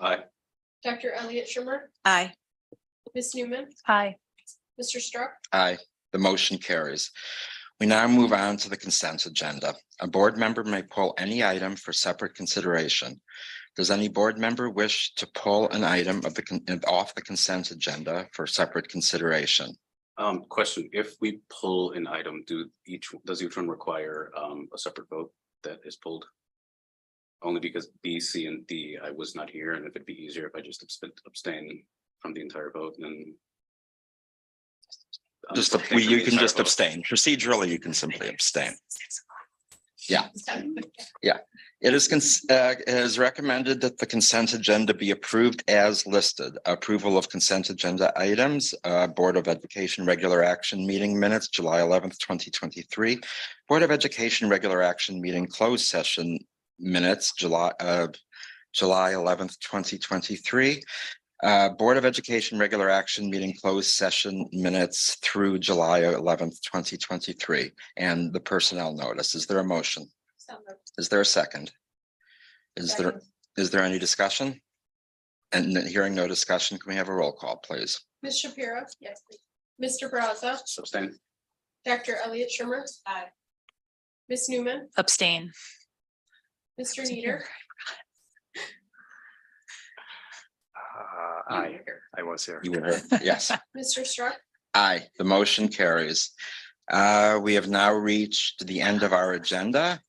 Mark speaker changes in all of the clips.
Speaker 1: Aye.
Speaker 2: Dr. Elliot Shimer,
Speaker 3: Aye.
Speaker 2: Ms. Newman,
Speaker 3: Aye.
Speaker 2: Mr. Struck,
Speaker 4: Aye, the motion carries. We now move on to the consent agenda. A board member may pull any item for separate consideration. Does any board member wish to pull an item of the, con- off the consent agenda for separate consideration?
Speaker 1: Um, question, if we pull an item, do each, does each one require um a separate vote that is pulled? Only because B, C, and D, I was not here, and if it'd be easier if I just abstain- abstain from the entire vote, then. Um,
Speaker 4: Just, you
Speaker 1: from
Speaker 4: can
Speaker 1: the
Speaker 4: just
Speaker 1: entire vote.
Speaker 4: abstain. Procedurally, you can simply abstain. It is, cons- uh, it is recommended that the consent agenda be approved as listed. Approval of consent agenda items, uh, Board of Education Regular Action Meeting Minutes, July eleventh, twenty twenty-three. Board of Education Regular Action Meeting Closed Session Minutes, July, uh, July eleventh, twenty twenty-three. Uh, Board of Education Regular Action Meeting Closed Session Minutes through July eleventh, twenty twenty-three. And the personnel notice. Is there a motion? Is there a second? Is there, is there any discussion? And then hearing no discussion, can we have a roll call, please?
Speaker 2: Ms. Shapiro? Yes. Mr. Brazza,
Speaker 1: Abstain.
Speaker 2: Dr. Elliot Shimer? Aye. Ms. Newman,
Speaker 3: Abstain.
Speaker 2: Mr. Nieder?
Speaker 5: Uh, I, I was here.
Speaker 4: You were here. Yes,
Speaker 2: Mr. Struck,
Speaker 4: aye, the motion carries. Uh, we have now reached the end of our agenda.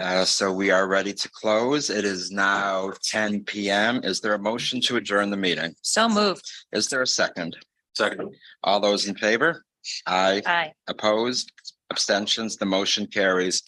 Speaker 4: Uh, so we are ready to close. It is now ten PM. Is there a motion to adjourn the meeting?
Speaker 3: So moved.
Speaker 4: Is there a second?
Speaker 1: Second.
Speaker 4: All those in favor? Aye,
Speaker 3: Aye.
Speaker 4: opposed, abstentions, the motion carries.